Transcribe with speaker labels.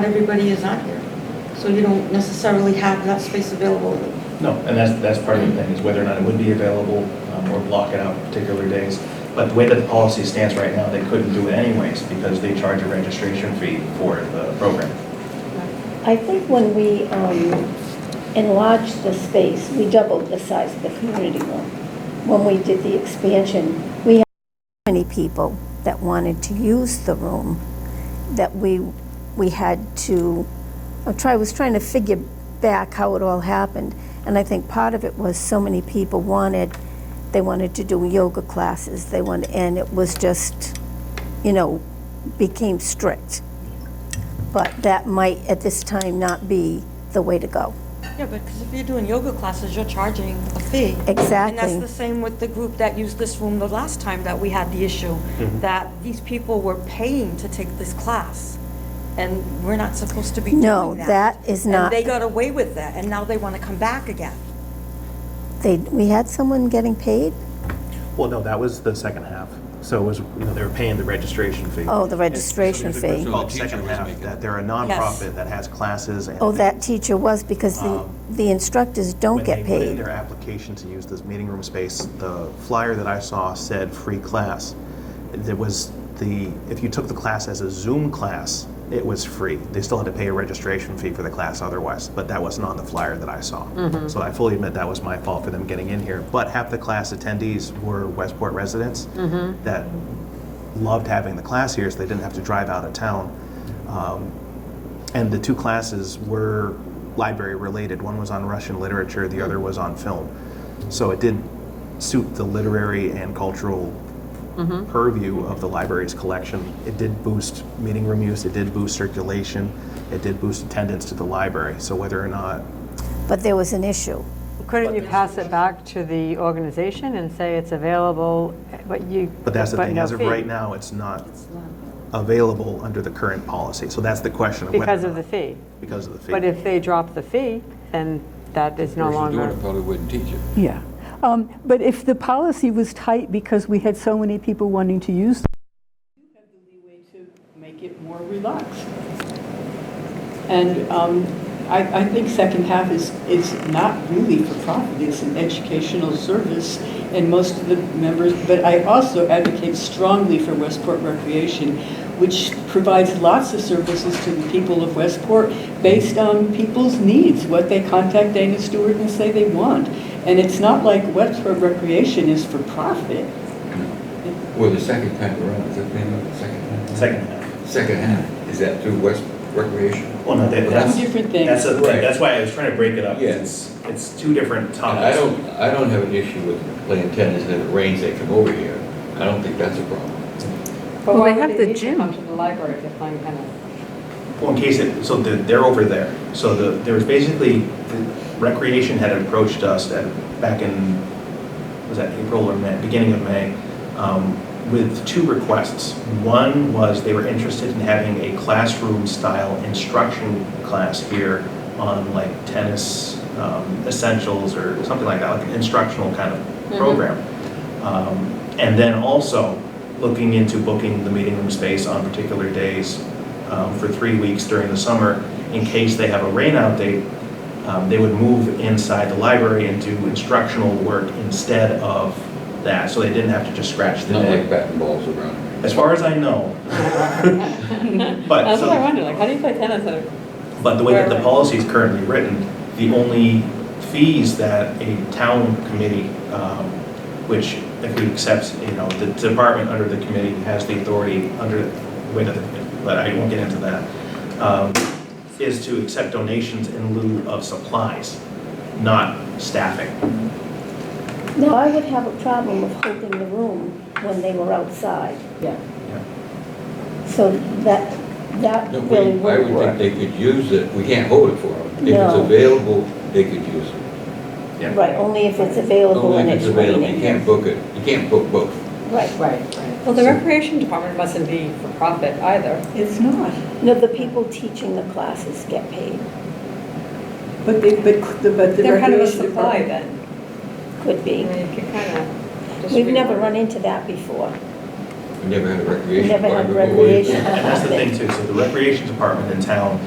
Speaker 1: Not everybody is on here, so you don't necessarily have that space available.
Speaker 2: No, and that's, that's part of the thing, is whether or not it would be available um, or block it out particular days. But the way that the policy stands right now, they couldn't do it anyways because they charge a registration fee for the program.
Speaker 3: I think when we um, enlarged the space, we doubled the size of the community room. When we did the expansion, we had so many people that wanted to use the room that we, we had to, I try, was trying to figure back how it all happened. And I think part of it was so many people wanted, they wanted to do yoga classes, they wanted, and it was just, you know, became strict but that might at this time not be the way to go.
Speaker 1: Yeah, but because if you're doing yoga classes, you're charging a fee. And that's
Speaker 3: Exactly.
Speaker 1: the same with the group that used this room the last time that we had the issue, that these people were paying to take this class, and we're not supposed to be doing that.
Speaker 3: No, that is
Speaker 1: And
Speaker 3: not-
Speaker 1: they got away with that, and now they want to come back again.
Speaker 3: They, we had someone getting paid?
Speaker 4: Well, no, that was the second half. So it was, you know, they were paying the registration fee.
Speaker 3: Oh, the registration
Speaker 4: It's
Speaker 3: fee.
Speaker 4: Called second half, that they're a nonprofit that has classes and.
Speaker 3: Oh, that teacher was because the,
Speaker 4: Um,
Speaker 3: the instructors don't get
Speaker 4: When they put in
Speaker 3: paid.
Speaker 4: their application to use this meeting room space, the flyer that I saw said free class. There was the, if you took the class as a Zoom class, it was free. They still had to pay a registration fee for the class otherwise, but that wasn't on the flyer that I saw.
Speaker 3: Mm-hmm.
Speaker 4: So I fully admit that was my fault for them getting in here. But half the class attendees were Westport residents
Speaker 3: Mm-hmm.
Speaker 4: that loved having the class here, so they didn't have to drive out of town. Um, and the two classes were library related. One was on Russian literature, the other was on film. So it did suit the literary and cultural
Speaker 5: Mm-hmm.
Speaker 4: purview of the library's collection. It did boost meeting room use, it did boost circulation, it did boost attendance to the library. So whether or not
Speaker 3: But there was an issue.
Speaker 5: Couldn't you pass it back to the organization and say it's available, but you,
Speaker 4: But that's the
Speaker 5: but
Speaker 4: thing,
Speaker 5: no
Speaker 4: as of
Speaker 5: fee?
Speaker 4: right now, it's not available under the current policy. So that's the question of whether.
Speaker 5: Because
Speaker 4: or
Speaker 5: of the
Speaker 4: not-
Speaker 5: fee.
Speaker 4: Because of the fee.
Speaker 5: But if they drop the fee, then that is no
Speaker 6: person doing
Speaker 5: longer,
Speaker 6: it probably wouldn't teach it.
Speaker 7: Yeah. Um, But if the policy was tight because we had so many people wanting to use. Make it more relaxed. And um, I, I think second half is, is not really for profit, it's an educational service, and most of the members, but I also advocate strongly for Westport Recreation, which provides lots of services to the people of Westport based on people's needs, what they contact Dana Stewart and say they want. And it's not like Westport Recreation is for profit.
Speaker 6: Well, the second time around, is that the name of it, second half?
Speaker 2: Second half.
Speaker 6: Second half, is that through West Recreation?
Speaker 2: Well, Oh, no, that-
Speaker 6: Well,
Speaker 2: that's-
Speaker 7: Two different things.
Speaker 2: That's, a-
Speaker 6: Right.
Speaker 2: that's why I was trying to break it up.
Speaker 6: Yeah.
Speaker 2: It's, it's two different
Speaker 6: And
Speaker 2: topics.
Speaker 6: I don't, I don't have an issue with playing tennis and it rains, they come over here. I don't think that's a problem.
Speaker 5: But
Speaker 8: Well,
Speaker 5: why
Speaker 8: they have
Speaker 5: would
Speaker 8: the
Speaker 5: they need to come
Speaker 8: gym.
Speaker 5: to the library if they're playing tennis?
Speaker 2: Well, in case it, so they're, they're over there. So the, there was basically, the Recreation had approached us at, back in, was that April or May, beginning of May, um, with two requests. One was they were interested in having a classroom-style instruction class here on like tennis um, essentials or something like that, like an instructional kind of
Speaker 7: Mm-hmm.
Speaker 2: program. Um, And then also looking into booking the meeting room space on particular days um, for three weeks during the summer in case they have a rainout date. um, They would move inside the library and do instructional work instead of that, so they didn't have to just scratch
Speaker 6: It's
Speaker 2: the
Speaker 6: not like
Speaker 2: day.
Speaker 6: batting balls around.
Speaker 2: As far as I know.
Speaker 8: That's
Speaker 2: But
Speaker 8: what
Speaker 2: so-
Speaker 8: I wonder, like, how do you play tennis at a?
Speaker 2: But the way that the policy is currently written, the only fees that a town committee, um, which if we accept, you know, the department under the committee has the authority under, wait, but I won't get into that, um, is to accept donations in lieu of supplies, not staffing.
Speaker 3: No, I would have a problem of holding the room when they were outside.
Speaker 7: Yeah.
Speaker 3: So that, that
Speaker 6: No, we-
Speaker 3: really
Speaker 6: I
Speaker 3: would
Speaker 6: would think
Speaker 3: work.
Speaker 6: they could use it, we can't hold it for them. If it's
Speaker 3: No.
Speaker 6: available, they could use it.
Speaker 2: Yeah.
Speaker 3: Right, only if it's available
Speaker 6: Only
Speaker 3: and
Speaker 6: if it's
Speaker 3: it's
Speaker 6: available, you
Speaker 3: raining.
Speaker 6: can't book it, you can't book both.
Speaker 3: Right.
Speaker 8: Right, right. Well, the recreation department mustn't be for profit either.
Speaker 7: It's not.
Speaker 3: No, the people teaching the classes get paid,
Speaker 7: But they, but, the- but the
Speaker 8: They're kind of a
Speaker 7: recreation
Speaker 8: supply
Speaker 7: department.
Speaker 8: then.
Speaker 3: could
Speaker 8: I
Speaker 3: be.
Speaker 8: mean, you can kind of.
Speaker 3: We've never run into that before.
Speaker 6: We never had a
Speaker 3: We
Speaker 6: recreation
Speaker 3: never had
Speaker 6: department. but we-
Speaker 3: recreation.
Speaker 2: And that's the thing too, so the recreation department in town